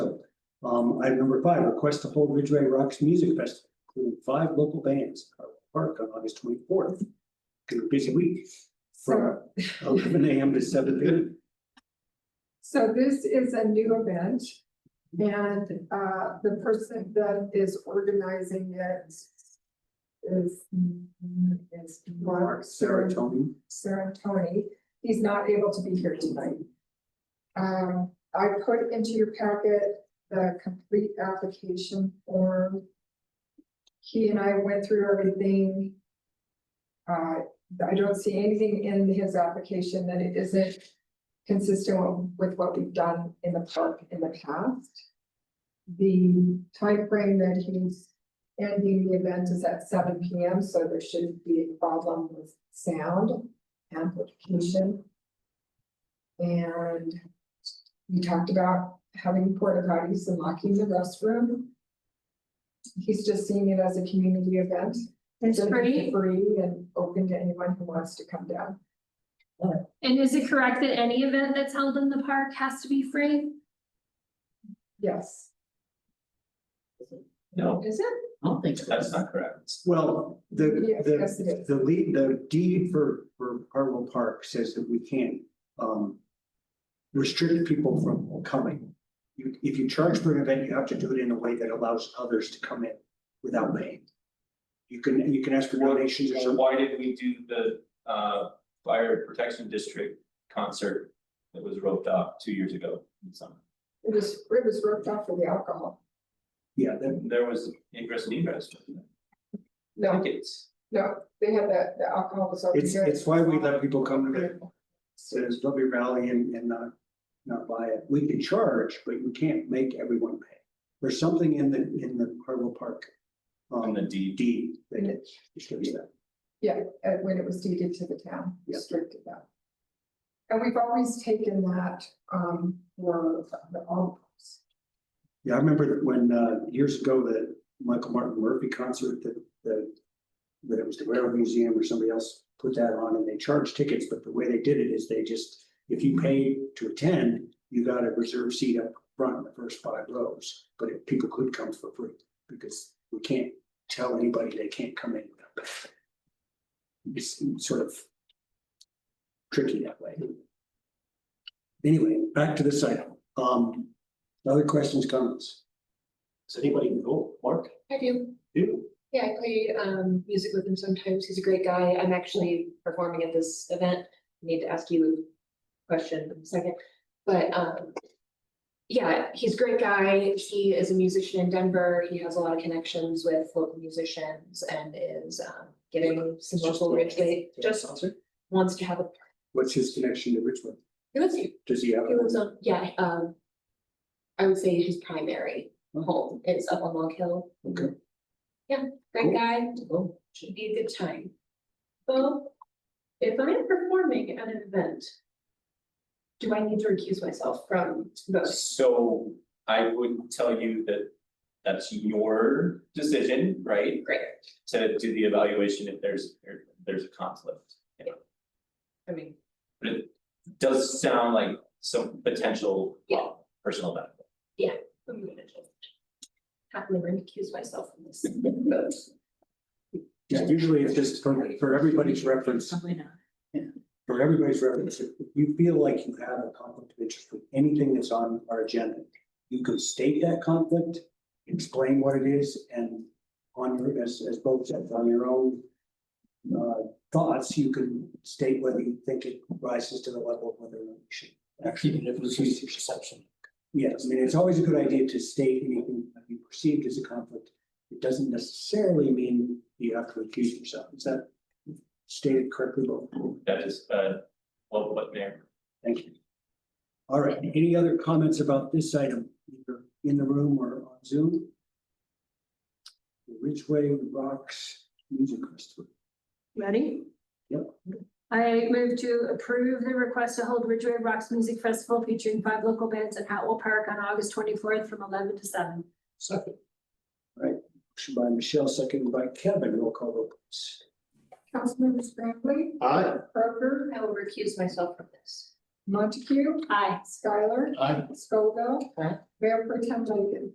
Um, item number five, request to hold Ridgeway Rocks Music Festival, including five local bands, Carver Park on August twenty-fourth. Gonna be a busy week So, from eleven AM to seven PM. so this is a new event. And, uh, the person that is organizing it is, is Mark Sarah Tony, Sarah Tony. He's not able to be here tonight. Um, I put into your packet the complete application form. He and I went through everything. Uh, I don't see anything in his application that it isn't consistent with what we've done in the park in the past. The time frame that he's ending the event is at seven P M, so there shouldn't be a problem with sound amplification. And we talked about having porta potties and locking the restroom. He's just seeing it as a community event. It's free. Free and open to anyone who wants to come down. And is it correct that any event that's held in the park has to be free? Yes. No, Is it? I don't think that's not correct. well, the, Yes, yes, it the, is. the lead, the deed for, for Harwell Park says that we can't, um. Restrict people from coming. You, if you charge for an event, you have to do it in a way that allows others to come in without paying. You can, you can ask for donations or So something. why did we do the uh fire protection district concert that was roped off two years ago in summer? It was, it was roped off for the alcohol. Yeah, that, There was ingress and egress. wasn't there? No, Tickets. no, they had the, the alcohol was over It's, here. it's why we let people come to the, to this W Rally and, and not, not buy it. We can charge, but you can't make everyone pay. There's something in the, in the Harwell Park. On Um, the E deed. deed that it shows that. uh, when it was deeded to the town, Yeah. restricted that. And we've always taken that, um, for the all. Yeah, I remember that when, uh, years ago, the Michael Martin Murphy concert that, that. That it was the Railroad Museum or somebody else put that on and they charged tickets, but the way they did it is they just, if you paid to attend. You got a reserved seat up front in the first five rows, but if people could come for free, because we can't tell anybody they can't come in. without paying. It's sort of. Tricky that way. Anyway, back to this item, um. Other questions, comments? Does anybody know, Mark? I do. You? Yeah, I play um music with him sometimes. He's a great guy. I'm actually performing at this event. Need to ask you a question in a second, but um. Yeah, he's a great guy. He is a musician in Denver. He has a lot of connections with local musicians and is um getting some local rich. Just wants to have a. What's his connection to Richmond? He lives here. Does he have? He lives on, yeah, um. I would say his primary home is up on Long Hill. Okay. Great Cool. guy. Oh. Should be a good time. Well, if I am performing at an event. Do I need to recuse myself from voting? So I would tell you that that's your decision, right? Great. To do the evaluation if there's, if there's a conflict. I mean, But it does sound like some potential Yeah. personal benefit. I'm gonna just. Happily recuse myself from this. vote. Yeah, usually it's just for, for everybody's reference, Probably not. for everybody's reference, if you feel like you have a conflict of interest with anything that's on our agenda, you could state that conflict, explain what it is, and on your, as, as both said, on your own uh, thoughts, you can state whether you think it rises to the level of whether or not you should actually. Even if it was just a perception. Yes, I mean, it's always a good idea to state anything that you perceived as a conflict. It doesn't necessarily mean you have to accuse yourself. Is that stated correctly, Bob? That is, uh, well, what there. Thank you. All right, any other comments about this item, either in the room or on Zoom? The Ridgeway Rocks Music Festival. Ready? Yep. I move to approve the request to hold Ridgeway Rocks Music Festival featuring five local bands at Hatwell Park on August twenty-fourth from eleven to seven. Second. All right, motion by Michelle, second by Kevin, roll call vote, please. Councilmember Scrambley, Aye. Kroger, I will recuse myself from this. Montague, Aye. Skylar, Aye. Scoville. Aye. Mayor Pretend Lincoln.